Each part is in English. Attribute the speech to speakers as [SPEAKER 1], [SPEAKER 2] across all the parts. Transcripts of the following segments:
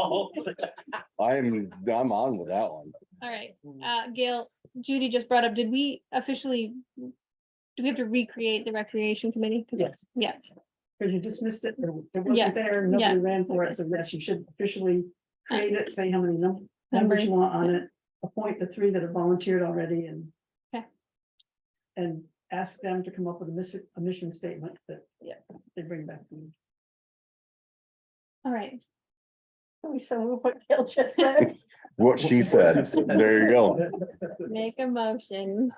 [SPEAKER 1] Oh,
[SPEAKER 2] I'm, I'm on with that one.
[SPEAKER 3] All right,
[SPEAKER 2] Mm.
[SPEAKER 3] uh, Gail, Judy just brought up, did we officially? Do we have to recreate the recreation committee? 'Cause-
[SPEAKER 4] Yes.
[SPEAKER 3] Yeah.
[SPEAKER 4] Because you dismissed it, or it
[SPEAKER 3] Yeah,
[SPEAKER 4] wasn't there,
[SPEAKER 3] yeah. Uh,
[SPEAKER 4] nobody ran for it, so yes, you should officially create it, say how many num- members you
[SPEAKER 3] Numbers,
[SPEAKER 4] want on it. Appoint the three that have volunteered already and.
[SPEAKER 3] Okay.
[SPEAKER 4] And ask them to come up with a mission, a mission statement that.
[SPEAKER 3] Yeah.
[SPEAKER 4] They bring back. to you.
[SPEAKER 3] All right,
[SPEAKER 5] We so what Gail just said.
[SPEAKER 2] What she said, there you go,
[SPEAKER 3] make a motion.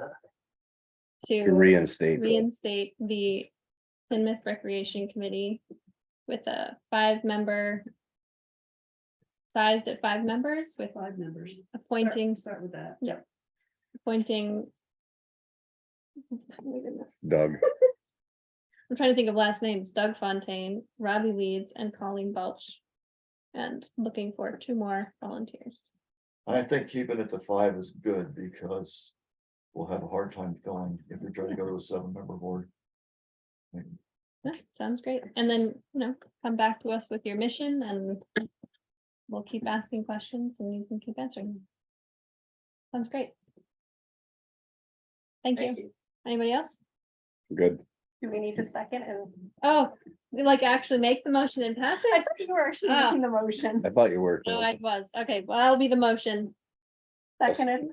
[SPEAKER 2] to
[SPEAKER 3] To
[SPEAKER 2] reinstate.
[SPEAKER 3] reinstate the Plymouth Recreation Committee with a five-member. Sized at five members with
[SPEAKER 4] Five members. Start-
[SPEAKER 3] Appointing.
[SPEAKER 4] Start with that.
[SPEAKER 3] Yeah. appointing. Wait a minute.
[SPEAKER 2] Doug,
[SPEAKER 3] I'm trying to think of last names, Doug Fontaine, Robbie Leeds, and Colleen Balch. And looking for two more volunteers.
[SPEAKER 6] I think keeping it to five is good because we'll have a hard time filling if we try to go to a seven member board.
[SPEAKER 3] Yeah, sounds great. And then, you know, come back to us with your mission and we'll keep asking questions and you can keep answering. them. Sounds great. Thank you. Anybody else?
[SPEAKER 2] good.
[SPEAKER 5] Do we need a second? And
[SPEAKER 3] Oh, we like actually make the motion and pass
[SPEAKER 5] I
[SPEAKER 3] it?
[SPEAKER 5] thought you were actually
[SPEAKER 3] Ah.
[SPEAKER 5] making the motion.
[SPEAKER 2] I thought you were.
[SPEAKER 3] Oh,
[SPEAKER 2] Jill.
[SPEAKER 3] I was. Okay, well, I'll be the motion.
[SPEAKER 5] Seconded.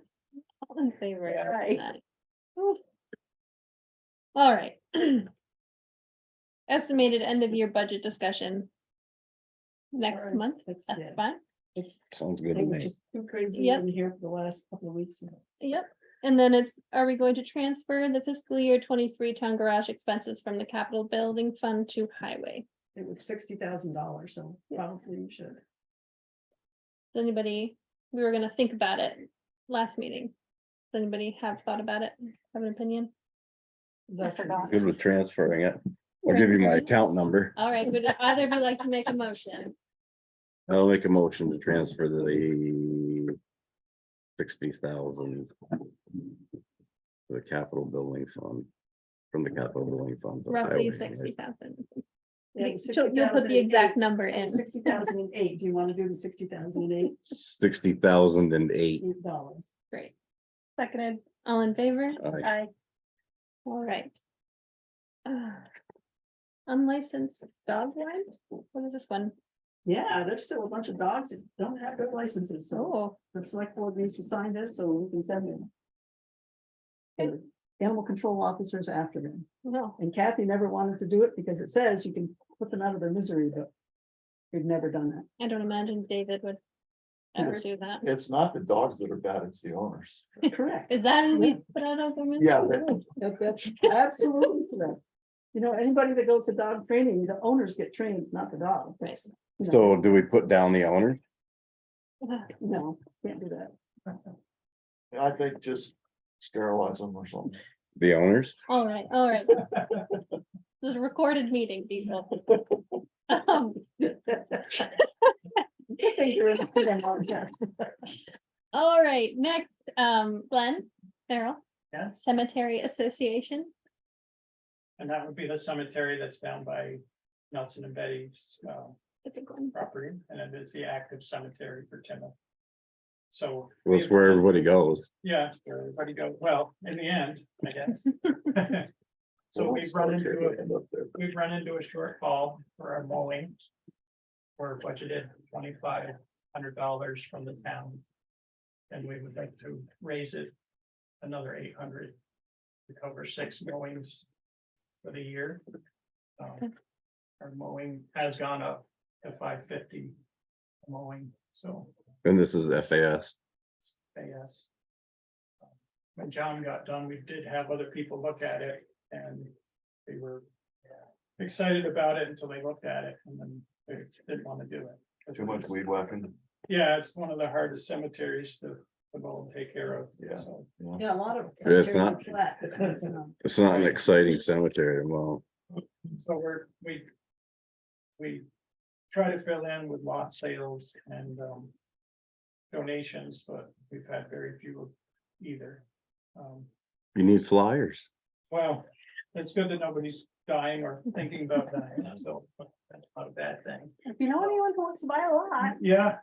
[SPEAKER 3] All in favor.
[SPEAKER 5] Right.
[SPEAKER 3] Aye. Oof. All right. Estimated end of year budget discussion. Next
[SPEAKER 4] Sorry,
[SPEAKER 3] month,
[SPEAKER 4] That's,
[SPEAKER 3] that's
[SPEAKER 4] yeah,
[SPEAKER 3] fine.
[SPEAKER 4] it's,
[SPEAKER 2] Sounds good
[SPEAKER 4] they
[SPEAKER 2] to
[SPEAKER 4] were
[SPEAKER 2] me.
[SPEAKER 4] just too crazy
[SPEAKER 3] Yep.
[SPEAKER 4] in here for the last couple of weeks. now.
[SPEAKER 3] Yep, and then it's, are we going to transfer the fiscal year twenty-three town garage expenses from the capital building fund to highway?
[SPEAKER 4] It was sixty thousand dollars, so probably you should.
[SPEAKER 3] Does anybody, we were gonna think about it last meeting. Does anybody have thought about it, have an opinion?
[SPEAKER 4] Is that-
[SPEAKER 5] forgot.
[SPEAKER 2] Good with transferring it. I'll give you my account number.
[SPEAKER 3] All right, would either of you like to make a motion?
[SPEAKER 2] I'll make a motion to transfer the sixty thousand to the capital building fund, from the capital building fund. to highway.
[SPEAKER 3] Roughly sixty thousand.
[SPEAKER 4] Yeah, it was
[SPEAKER 3] You'll put the
[SPEAKER 4] 60,008.
[SPEAKER 3] exact number in.
[SPEAKER 4] Sixty thousand and eight, do you want to do the sixty thousand and
[SPEAKER 2] Sixty thousand and eight.
[SPEAKER 4] eight dollars?
[SPEAKER 3] Great. Seconded, all in favor?
[SPEAKER 2] Aye.
[SPEAKER 5] I
[SPEAKER 3] All right. Uh, Unlicensed dog rent? What is this one?
[SPEAKER 4] Yeah, there's still a bunch of dogs that don't have their licenses, so
[SPEAKER 3] Oh,
[SPEAKER 4] the select board needs to sign this, so we can send them.
[SPEAKER 3] Okay.
[SPEAKER 4] The Animal control officers after them,
[SPEAKER 3] no.
[SPEAKER 4] and Kathy never wanted to do it because it says you can put them out of their misery, but we've never done that.
[SPEAKER 3] I don't imagine David would ever do that.
[SPEAKER 6] It's not the dogs that are bad, it's the owners.
[SPEAKER 4] Correct.
[SPEAKER 3] Is that who
[SPEAKER 4] Yeah.
[SPEAKER 3] we put out of the?
[SPEAKER 6] Yeah,
[SPEAKER 4] That- That's absolutely correct. You know, anybody that goes to dog training, the owners get trained, not the dog. That's, you know,
[SPEAKER 2] So do we put down the owner?
[SPEAKER 4] no, can't do that.
[SPEAKER 6] I think just sterilize them or something.
[SPEAKER 2] The owners?
[SPEAKER 3] All right, all right. This is a recorded meeting, people. Um,
[SPEAKER 4] I think you're in the wrong one, yes.
[SPEAKER 3] All right, next, um, Glenn, Farrell,
[SPEAKER 1] yeah,
[SPEAKER 3] Cemetery Association.
[SPEAKER 1] and that would be the cemetery that's down by Nelson and Betty's uh,
[SPEAKER 3] It's a Glenn.
[SPEAKER 1] property, and it is the active cemetery for Timoth. So.
[SPEAKER 2] Well, it's where everybody goes.
[SPEAKER 1] Yeah, it's where everybody goes, well, in the end, I guess. So we've run into it. we've run into a shortfall for our mowing. We're budgeted twenty-five hundred dollars from the town. And we would like to raise it another eight hundred to cover six mowings for the year. Um,
[SPEAKER 3] Okay.
[SPEAKER 1] Our mowing has gone up to five fifty mowing, so
[SPEAKER 2] And this is FAS.
[SPEAKER 1] yes. When John got done, we did have other people look at it and they were excited about it until they looked at it and then they didn't want to do it.
[SPEAKER 6] Too much weed whacking.
[SPEAKER 1] Yeah, it's one of the hardest cemeteries to, to go and take care of.
[SPEAKER 6] Yeah.
[SPEAKER 1] so.
[SPEAKER 6] you know?
[SPEAKER 4] Yeah, a lot of.
[SPEAKER 2] Yeah, it's
[SPEAKER 4] cemeteries
[SPEAKER 2] not-
[SPEAKER 4] are flat, that's what it's on.
[SPEAKER 2] It's not an exciting cemetery. Well,
[SPEAKER 1] So we're, we. We try to fill in with lot sales and um. Donations, but we've had very few either. Um,
[SPEAKER 2] you need flyers.
[SPEAKER 1] well, it's good that nobody's dying or thinking about dying, so that's not a bad thing.
[SPEAKER 4] If you know anyone who wants to buy a lot.
[SPEAKER 1] Yeah,